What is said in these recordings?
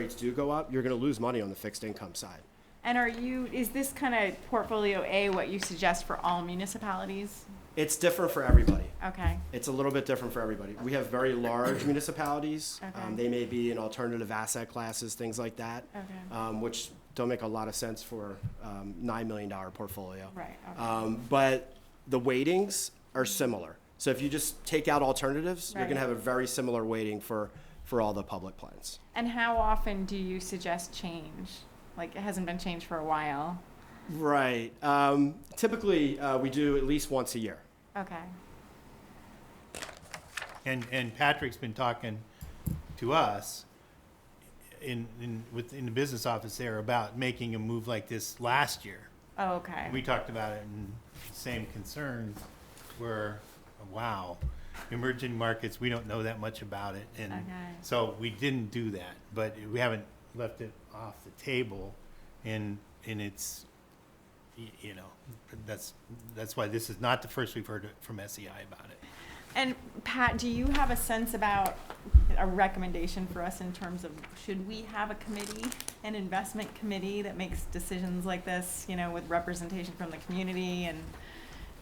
rates do go up, you're going to lose money on the fixed income side. And are you, is this kind of portfolio A what you suggest for all municipalities? It's different for everybody. Okay, It's a little bit different for everybody. We have very large municipalities. Um, Okay. they may be in alternative asset classes, things like that, Okay. um, which don't make a lot of sense for um, $9 million portfolio. right, okay, Um, but the weightings are similar. So if you just take out alternatives, you're going to Right. have a very similar weighting for, for all the public plans. And how often do you suggest change? Like, it hasn't been changed for a while. Right. Um, typically, uh, we do at least once a year. Okay, And, and Patrick's been talking to us in, in, within the business office there about making a move like this last year. oh, okay. We talked about it and same concerns were, wow, emerging markets, we don't know that much about it. And Okay. so we didn't do that, but we haven't left it off the table and, and it's, y- you know, that's, that's why this is not the first we've heard from SEI about it. And Pat, do you have a sense about a recommendation for us in terms of, should we have a committee, an investment committee that makes decisions like this, you know, with representation from the community? And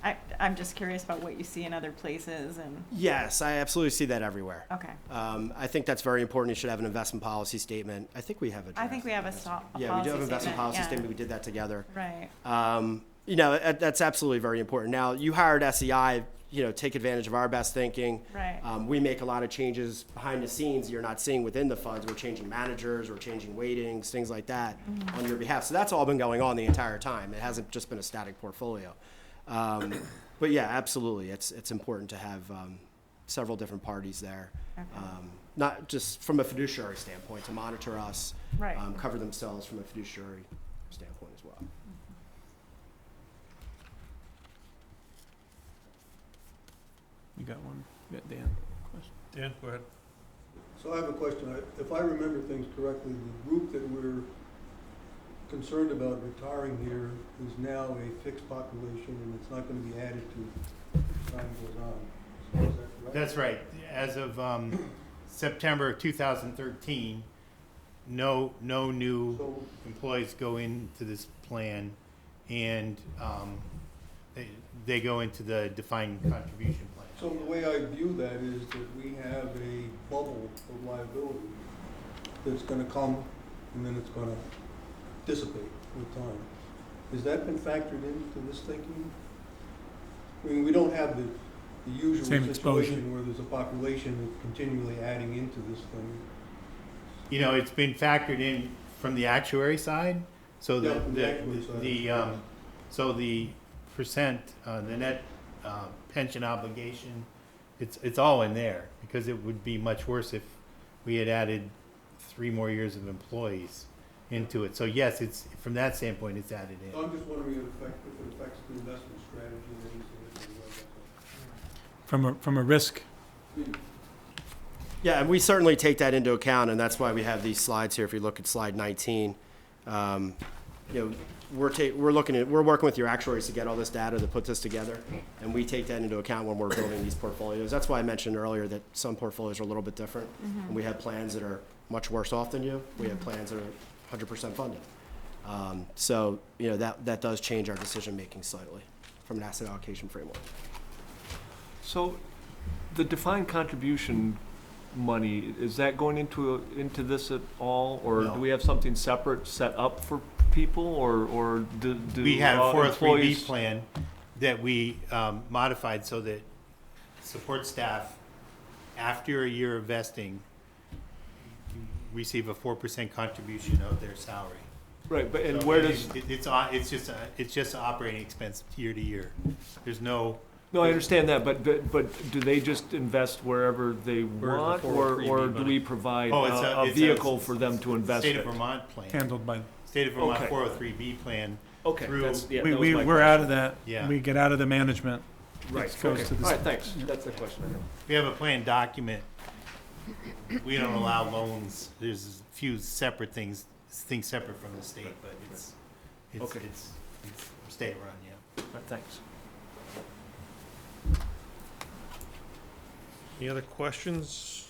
I, I'm just curious about what you see in other places and, Yes, I absolutely see that everywhere. okay. Um, I think that's very important. You should have an investment policy statement. I think we have a I draft. think we have a stop, a policy Yeah, we do have an investment statement, policy yeah. statement. We did that together. Right, Um, you know, that- that's absolutely very important. Now, you hired SEI, you know, take advantage of our best thinking. Right. Um, we make a lot of changes behind the scenes you're not seeing within the funds. We're changing managers, we're changing weightings, things like that Mm-hmm. on your behalf. So that's all been going on the entire time. It hasn't just been a static portfolio. Um, but yeah, absolutely. It's, it's important to have um, several different parties there. Okay. Um, not just from a fiduciary standpoint to monitor us, Right. um, cover themselves from a fiduciary standpoint as well. You got one? You got Dan? Dan, go ahead. So I have a question. I- If I remember things correctly, the group that we're concerned about retiring here is now a fixed population and it's not going to be added to as time goes on. So is that correct? That's right. As of um, September of 2013, no, no new So, employees go into this plan, and um, they, they go into the defined contribution so the plan. way I view that is that we have a bubble of liability that's going to come and then it's going to dissipate with time. Has that been factored into this thinking? I mean, we don't have the, the usual Same exposure. situation where there's a population that's continually adding into this thing. You know, it's been factored in from the actuary side, so Yeah, the, from the the, actuary side. the, um, so the percent, uh, the net uh, pension obligation, it's, it's all in there, because it would be much worse if we had added three more years of employees into it. So yes, it's, from that standpoint, it's added So in. I'm just wondering if it affects, if it affects the investment strategy in any significant way. that's From a, from a risk, all. Yeah, and we certainly take that into account, and that's why we have these slides here. If you look at slide 19, um, you know, we're ta- we're looking at, we're working with your actuaries to get all this data to put this together, and we take that into account when we're building these portfolios. That's why I mentioned earlier that some portfolios are a little bit different, and we have plans that are much worse off than you. We have plans that are 100% funded. Um, So, you know, that, that does change our decision-making slightly from an asset allocation framework. So, the defined contribution money, is that going into, into this at all? Or No. do we have something separate set up for people, or, or do, do? We had uh, a 403B employees- plan that we um, modified so that support staff, after a year of vesting, receive a 4% contribution of their salary. Right, but, and So where it- does, it- It's, on- it's just, a- it's just an operating expense year to year. There's no, no, I understand that, but, but, but do they just invest wherever they the want? Or, 403B or do money? we provide Oh, it's a- a, a it's a vehicle for them to invest state of in? Vermont plan, handled by, state of Vermont Okay. 403B plan. Okay, through- that's, yeah, we, that was we, my we're out of that. Yeah. We get out of the management. Right, It goes okay, to all the- right, thanks, that's the question I had. We have a plan document. We don't allow loans. There's a few separate things, things separate from the state, but it's, it's, Okay. it's, it's state run, yeah. All right, thanks. Any other questions?